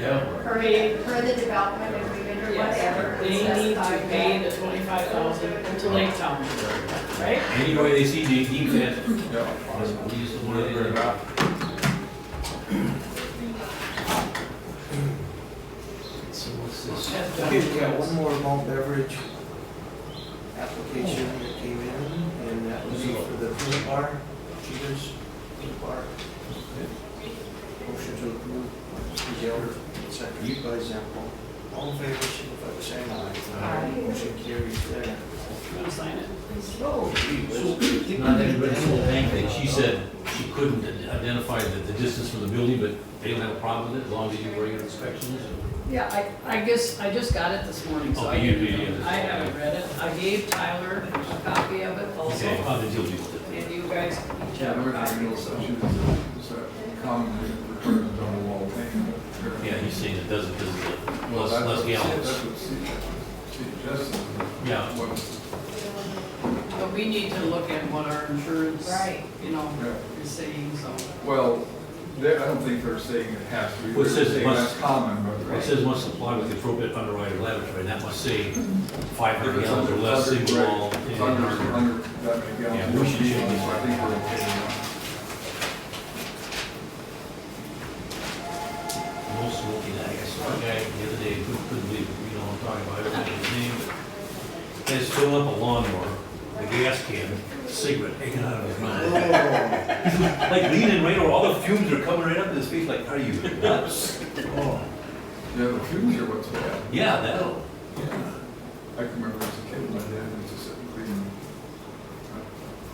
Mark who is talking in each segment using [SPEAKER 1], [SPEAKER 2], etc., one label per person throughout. [SPEAKER 1] Yeah.
[SPEAKER 2] per, per the development agreement or whatever.
[SPEAKER 3] Yes, they need to pay the twenty-five thousand until they tell me, right?
[SPEAKER 1] Any way they see they deem it. Yeah. We just want to.
[SPEAKER 4] So what's this?
[SPEAKER 3] That's
[SPEAKER 4] Okay,
[SPEAKER 3] done.
[SPEAKER 4] we got one more malt beverage application that came in, and that would be for the food bar, Cheetah's Food Bar. Motion to approve, Mr. Zeller, seconded by Zempel. All in favor, signify by saying aye.
[SPEAKER 3] Aye.
[SPEAKER 4] Motion carries there.
[SPEAKER 3] You wanna sign it?
[SPEAKER 4] Oh, gee,
[SPEAKER 1] So, Not that red soul tank thing, she said she couldn't identify the, the distance from the building, but they don't have a problem with it as long as you do regular inspections.
[SPEAKER 3] Yeah, I, I guess, I just got it this morning, so I,
[SPEAKER 1] Okay, you- you- you-
[SPEAKER 3] haven't- I haven't read it. I gave Tyler a copy of it
[SPEAKER 1] Okay,
[SPEAKER 3] also,
[SPEAKER 1] how did you deal with it?
[SPEAKER 3] and you guys each
[SPEAKER 5] Yeah,
[SPEAKER 3] have a
[SPEAKER 5] we're not
[SPEAKER 3] copy.
[SPEAKER 5] real subject to that common requirement on the wall thing. but-
[SPEAKER 1] Yeah, he's saying it doesn't, doesn't,
[SPEAKER 5] Well,
[SPEAKER 1] less,
[SPEAKER 5] that's
[SPEAKER 1] less
[SPEAKER 5] what-
[SPEAKER 1] gallons.
[SPEAKER 5] That's what she, she just.
[SPEAKER 1] Yeah.
[SPEAKER 5] What-
[SPEAKER 3] But we need to look at what our insurance,
[SPEAKER 2] Right.
[SPEAKER 3] you know,
[SPEAKER 5] Yeah.
[SPEAKER 3] is saying, so.
[SPEAKER 5] Well, they, I don't think they're saying it has to be.
[SPEAKER 1] Well, it
[SPEAKER 5] They're
[SPEAKER 1] says it
[SPEAKER 5] saying
[SPEAKER 1] must-
[SPEAKER 5] That's common, but.
[SPEAKER 1] It says must apply with the appropriate underwriter laboratory, and that must say five
[SPEAKER 5] If
[SPEAKER 1] hundred
[SPEAKER 5] it's
[SPEAKER 1] gallons
[SPEAKER 5] under,
[SPEAKER 1] or less
[SPEAKER 5] under,
[SPEAKER 1] single wall.
[SPEAKER 5] right, it's
[SPEAKER 1] and-
[SPEAKER 5] under, under that many
[SPEAKER 1] Yeah,
[SPEAKER 5] gallons.
[SPEAKER 1] we should
[SPEAKER 5] So
[SPEAKER 1] change it.
[SPEAKER 5] I think we're okay.
[SPEAKER 1] No smoking, I guess, one guy the other day, couldn't couldn't believe, it, you know, I'm talking about, I don't know his name, but he's filling up a lawnmower, a gas can, cigarette hanging out of his mouth.
[SPEAKER 4] Oh,
[SPEAKER 1] Like leaning right over, all the fumes are coming right up in his face, like, are you nuts?
[SPEAKER 4] oh.
[SPEAKER 5] Yeah, the fumes are what's bad.
[SPEAKER 1] Yeah, that'll,
[SPEAKER 5] I can remember as a kid, my dad used to sit and clean, uh,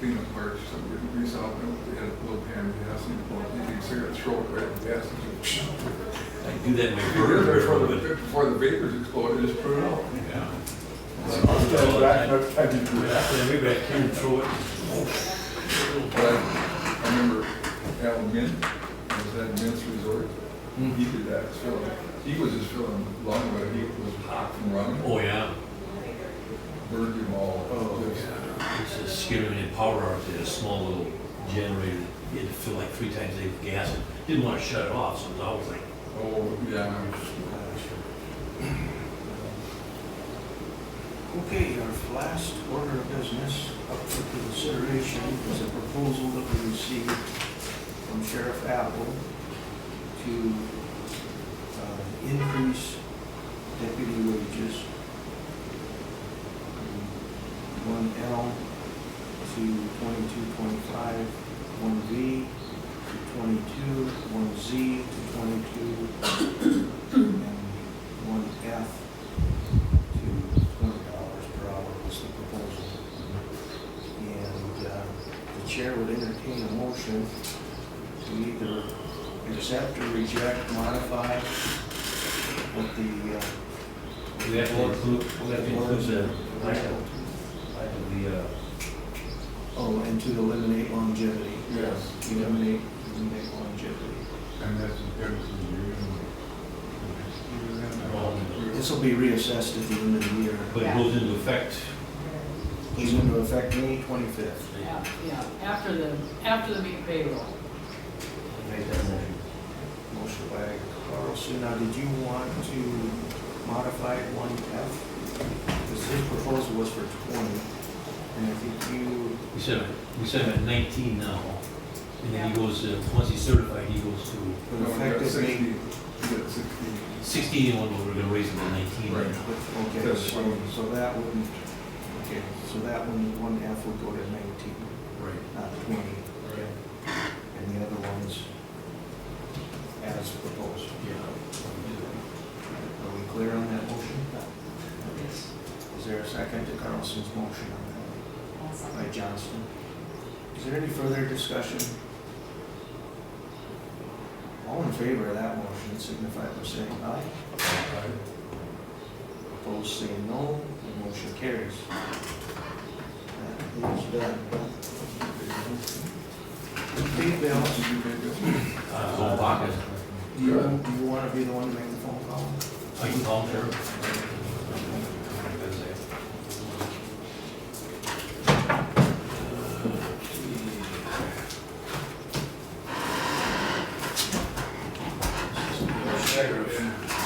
[SPEAKER 5] clean up parts, so we would grease out, and we had a little pan, he asked me to blow, he would cigarette, throw it right in the gas.
[SPEAKER 1] I do that in my burger,
[SPEAKER 5] Before
[SPEAKER 1] before, but,
[SPEAKER 5] the, before the vapors exploded, just put it out.
[SPEAKER 1] yeah.
[SPEAKER 5] I'll stand back, but I did do that.
[SPEAKER 1] After every back here and throw it.
[SPEAKER 5] But I, I remember Al Mint, it was at Mint's Resort, he did that, as well. he was just filling long way, he was hot from running,
[SPEAKER 1] Oh, yeah,
[SPEAKER 5] burned him all.
[SPEAKER 4] Oh,
[SPEAKER 5] Just-
[SPEAKER 1] it's a scary, when they power out, they had a small little generator, you had to fill like three times the gas, and didn't wanna shut it off, so it was always like,
[SPEAKER 5] Oh, yeah.
[SPEAKER 4] Okay, our last order of business up for consideration is a proposal that we received from Sheriff Apple to uh, increase deputy wages from one L to twenty-two point five, one V to twenty-two, one Z to twenty-two, and one F to twenty dollars per hour was the proposal. And uh, the chair would entertain a motion to either accept or reject, modify what the. uh,
[SPEAKER 1] We have to include, we have to include the, like, the, uh,
[SPEAKER 4] Oh, and to eliminate longevity.
[SPEAKER 5] Yes.
[SPEAKER 4] Eliminate, eliminate longevity.
[SPEAKER 5] And that's everything you.
[SPEAKER 4] This will be reassessed at the end of the year.
[SPEAKER 1] but it goes into effect.
[SPEAKER 4] It's going to affect May twenty-fifth.
[SPEAKER 3] Yeah, yeah, after the, after the big payroll.
[SPEAKER 4] Make that motion. Motion by Carlson. Now, did you want to modify one F? Because his proposal was for twenty, and I think you,
[SPEAKER 1] We set him, we set him at nineteen now, and then he goes, uh, once he's certified, he goes to
[SPEAKER 4] but effectively,
[SPEAKER 5] You got sixty.
[SPEAKER 1] sixteen, and one, we're gonna raise him to nineteen.
[SPEAKER 5] Right.
[SPEAKER 4] but, okay,
[SPEAKER 5] That's
[SPEAKER 4] so,
[SPEAKER 5] one.
[SPEAKER 4] so that wouldn't, okay, so that one, one F would go to nineteen,
[SPEAKER 1] Right.
[SPEAKER 4] not twenty, and the other ones as proposed.
[SPEAKER 1] Yeah.
[SPEAKER 4] Are we clear on that motion?
[SPEAKER 3] Yes.
[SPEAKER 4] Is there a second to Carlson's motion on that? by Johnston. Is there any further discussion? All in favor of that motion signify by saying aye. Opposed, say no. The motion carries. That is done. Dave Bell,
[SPEAKER 1] Uh, so Baca,
[SPEAKER 4] do you, do you want to be the one to make the phone call?
[SPEAKER 1] I can call him there.